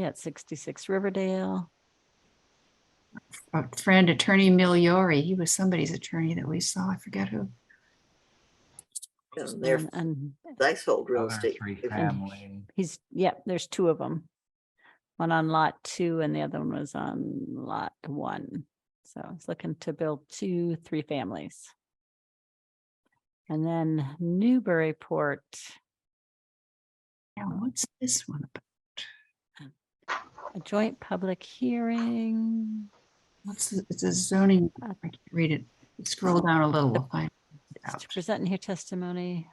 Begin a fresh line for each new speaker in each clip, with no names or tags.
Yeah, at 66 Riverdale.
Our friend Attorney Miliori, he was somebody's attorney that we saw, I forget who.
And Um, they're
And- And
leasehold real
Other
estate.
three
If-
family.
he's, yeah, there's two of them. One on lot two and the other one was on lot one. So I was looking to build two, three families. And then Newburyport,
Now, what's this one about?
a joint public hearing.
What's, the- it's a zoning,
Uh,
I can't read it, scroll down a little, we'll find it
It's
out.
To present and hear testimony.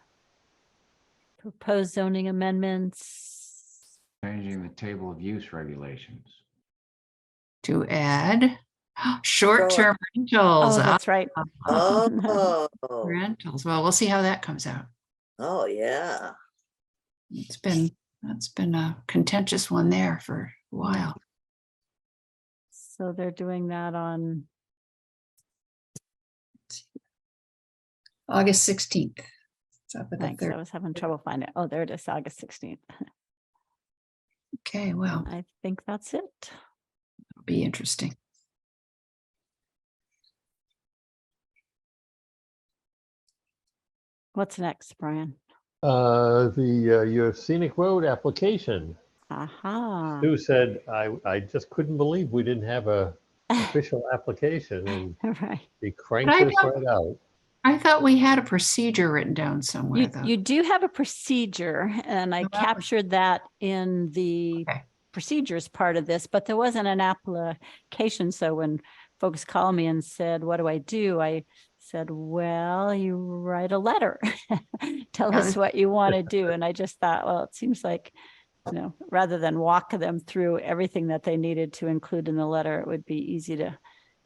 Proposed zoning amendments.
Changing the table of use regulations.
To add, short-term
Oh,
rentals,
that's right.
uh,
Oh,
rentals, well, we'll see how that comes out.
oh, yeah.
It's been, that's been a contentious one there for a while.
So they're doing that on,
August sixteenth. It's up at the
thanks, I
third.
was having trouble finding. it. Oh, there it is, August 16th.
Okay, well,
I think that's it.
it'll be interesting.
What's next, Brian?
Uh, the, uh, your scenic road application,
Aha.
Sue said, I, I just couldn't believe we didn't have a official application and
Right.
he cranked
I
this
thought-
right out.
I thought we had a procedure written down somewhere,
You,
though.
you do have a procedure and I
Oh, that was-
captured that in the
Okay.
procedures part of this, but there wasn't an application. So when folks called me and said, what do I do? I said, well, you write a letter. Tell
Yeah.
us what you want to do. And I just thought, well, it seems like, you know, rather than walk them through everything that they needed to include in the letter, it would be easy to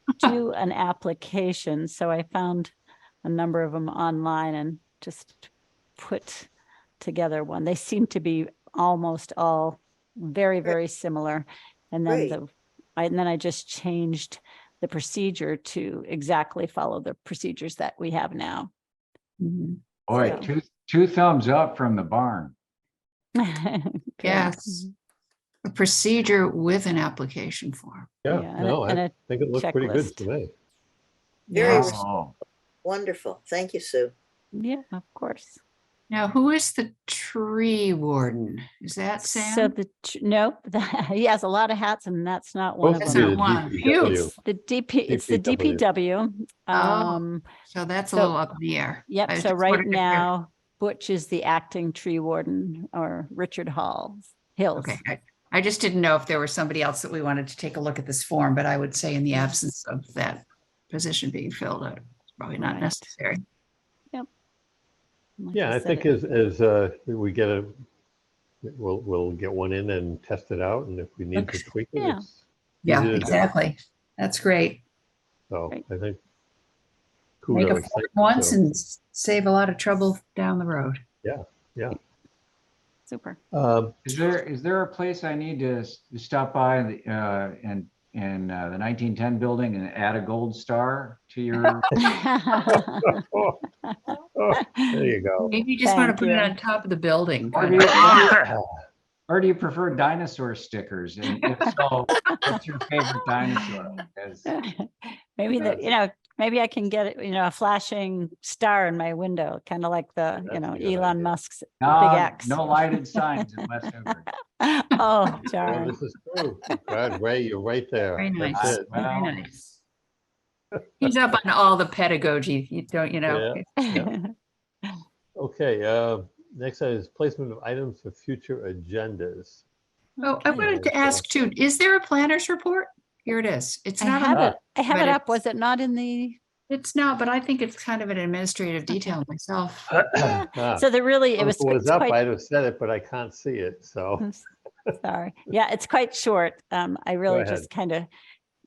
do an application. So I found a number of them online and just put together one. They seem to be almost all very, very similar. And then
Great.
the, I- and then I just changed the procedure to exactly follow the procedures that we have now.
Mhm.
Boy,
Yeah.
two, two thumbs up from the barn.
Good.
Yes. A procedure with an application form.
Yeah,
Yeah, and a-
no,
and
I
a-
think it looked pretty good
checklist.
to me.
Very
Yes.
Oh,
Wonderful. Thank you, Sue.
Yeah, of course.
Now, who is the tree warden? Is that
So
Sam?
the, tr- nope, he has a lot of hats and that's not one
Both
of
That's
of
them.
not
you, the
one.
DPW.
Phew.
The DP, it's the
DPW.
DPW.
Oh.
Um,
So that's a
so-
little up in the air. I
Yep, so
just
right
wondered if there-
now Butch is the acting tree warden or Richard Hall Hills.
Okay, I- I just didn't know if there was somebody else that we wanted to take a look at this form, but I would say in the absence of that position being filled, out, it's probably not
Right.
necessary.
Like
Yeah, I
said,
think
it-
as, as, uh, we get a, we'll, we'll get one in and test it out and if we need
Okay.
to tweak it,
Yeah.
it's.
Yeah,
easy to do.
exactly. That's great.
So
Right.
I think.
Make a
kudos,
form
thank you,
once
Joe.
and s- save a lot of trouble down the road.
Super.
Um,
is there, is there a place I need to s- to stop by in the, uh, in, in uh, the nineteen ten building and add a gold star to your?
oh, There you go.
Maybe you just want to
Thank
put it
you.
on top of the building.
Or
kind
do
of.
you- Or do you prefer dinosaur stickers? And if so, what's your favorite dinosaur? 'Cause-
Maybe that, you know, maybe I can get, you know, a flashing star in my window, kind of like the, you
That's
know,
a good
Elon
idea.
Musk's.
No,
X.
no lighted signs in West Oakland.
Oh,
Well,
darn.
This is true. God, Ray, you're right there.
Very nice.
That's it.
Very
Well-
nice. He's up on all the pedagogy, you don't, you know.
Okay, uh, next item is placement of items for future agendas.
Oh, I
Okay.
wanted to ask too, is there a planner's report? Here it is. It's
I
not, on
Uh,
have
the-
it, I have
but
it up.
it's-
Was it not in the?
it's not, but I think it's kind of an administrative detail myself.
Yeah.
Ah,
So there really, it
If
was.
it was
it's
up,
quite-
I'd have said it, but I can't see it, so.
I'm s- Sorry. Yeah, it's quite short. Um, I really
ahead.
just kind of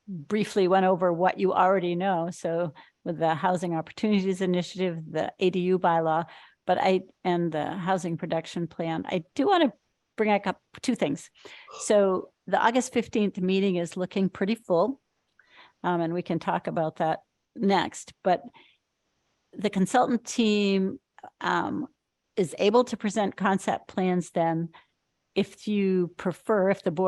briefly went over what you already know. So with the Housing Opportunities Initiative, the ADU bylaw, but I, and the Housing Production Plan, I do want to bring up a- two things. So the August 15th meeting is looking pretty full. Um, and we can talk about that next, but the consultant team, um, is able to present concept plans then if you prefer, if the board